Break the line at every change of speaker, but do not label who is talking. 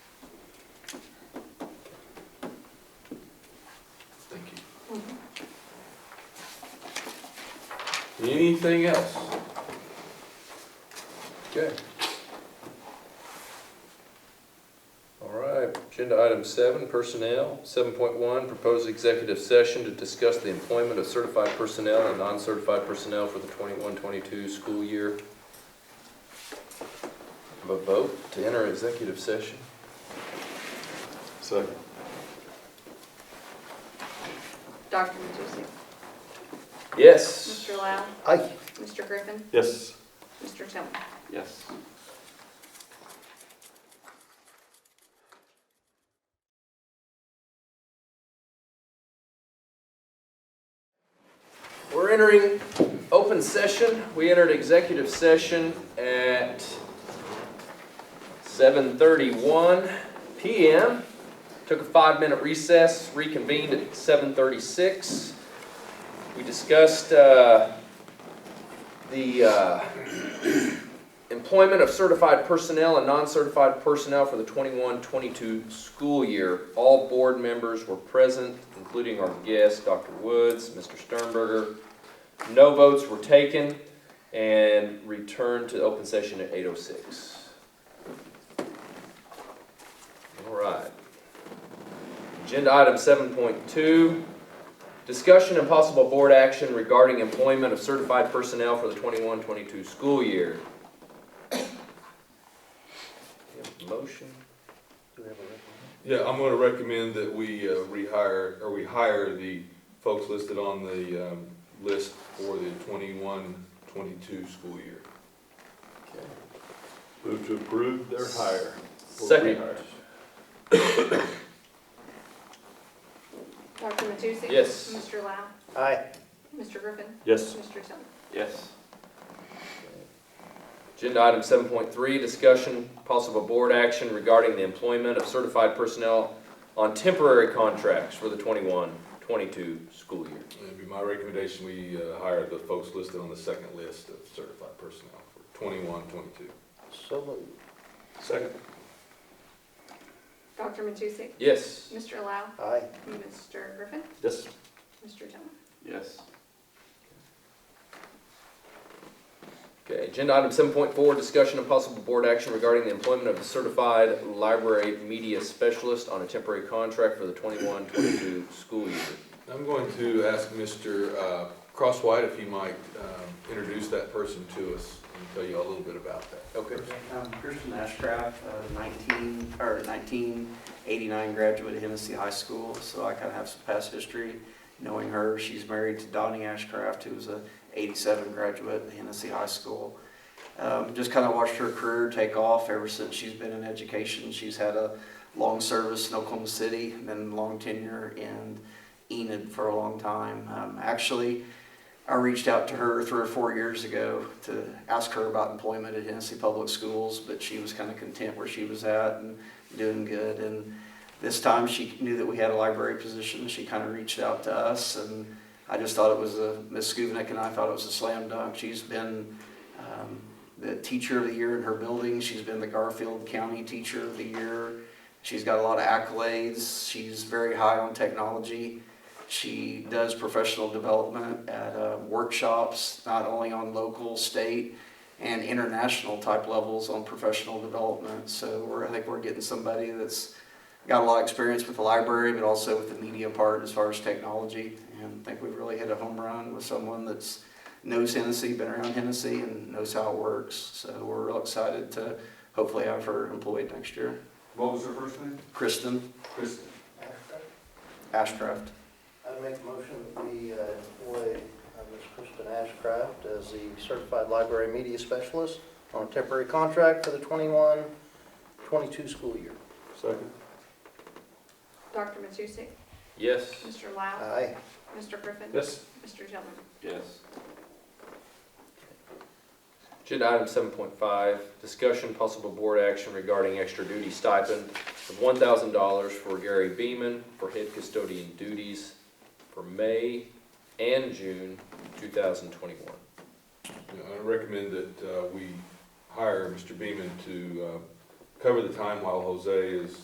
Mm-hmm. Anything else? Okay. All right, agenda item seven, personnel. Seven point one, proposed executive session to discuss the employment of certified personnel and non-certified personnel for the 21-22 school year. Have a vote to enter executive session.
Second.
Dr. Matusi.
Yes.
Mr. Lau.
Aye.
Mr. Griffin.
Yes.
Mr. Tillman.
Yes.
We're entering open session. We entered executive session at 7:31 PM. Took a five-minute recess, reconvened at 7:36. We discussed uh, the uh, employment of certified personnel and non-certified personnel for the 21-22 school year. All board members were present, including our guest, Dr. Woods, Mr. Sternberger. No votes were taken and returned to open session at 8:06. All right. Agenda item 7.2, discussion and possible board action regarding employment of certified personnel for the 21-22 school year. We have a Motion? Do we have a recommendation?
Yeah, I'm gonna recommend that we uh, rehire, or we hire the folks listed on the, um, list for the 21-22 school year.
Okay.
Move to approve their hire. or
Second,
rehire.
Dr. Matusi.
Yes.
Mr. Lau.
Aye.
Mr. Griffin.
Yes.
Mr. Tillman.
Yes.
agenda item seven point three, discussion, possible board action regarding the employment of certified personnel on temporary contracts for the 21-22 school year.
It'd be my recommendation, we uh, hire the folks listed on the second list of certified personnel for 21-22.
So moved.
Second.
Dr. Matusi.
Yes,
Mr. Lau.
Aye.
Mr. Griffin.
Yes.
Mr. Tillman.
Yes.
okay, agenda item seven point four, discussion and possible board action regarding the employment of a certified library media specialist on a temporary contract for the 21-22 school year.
I'm going to ask Mr. uh, Crosswhite if he might um, introduce that person to us and tell you a little bit about that.
Okay.
Um, Christian Ashcraft, uh, 19, or 1989 graduate of Hennessy High School, so I kind of have some past history knowing her. She's married to Donnie Ashcraft, who was a 87 graduate of Hennessy High School. Um, Just kind of watched her career take off ever since she's been in education. She's had a long service in Oklahoma City, and then long tenure in Enid for a long time. Um, Actually, I reached out to her three or four years ago to ask her about employment at Hennessy Public Schools, but she was kind of content where she was at and doing good. And this time she knew that we had a library position. She kind of reached out to us, and I just thought it was a, Ms. Skubnik and I thought it was a slam dunk. She's been um, the teacher of the year in her building, she's been the Garfield County Teacher of the Year. She's got a lot of accolades, she's very high on technology. She does professional development at uh, workshops, not only on local, state, and international type levels on professional development. So we're, I think we're getting somebody that's got a lot of experience with the library, but also with the media part as far as technology. And I think we've really hit a home run with someone that's knows Hennessy, been around Hennessy, and knows how it works. So we're real excited to hopefully have her employed next year.
What was her first name?
Kristen
Kristen.
Ashcraft.
I make a motion that we uh, employ uh, Ms. Kristen Ashcraft as the certified library media specialist on a temporary contract for the 21-22 school year.
Second.
Dr. Matusi.
Yes,
Mr. Lau.
Aye.
Mr. Griffin.
Yes.
Mr. Tillman.
Yes.
agenda item seven point five, discussion, possible board action regarding extra duty stipend of one thousand dollars for Gary Beeman for head custodian duties for May and June two thousand twenty-one.
You know, I recommend uh, that uh, we hire Mr. Beaman to uh, cover the time while Jose is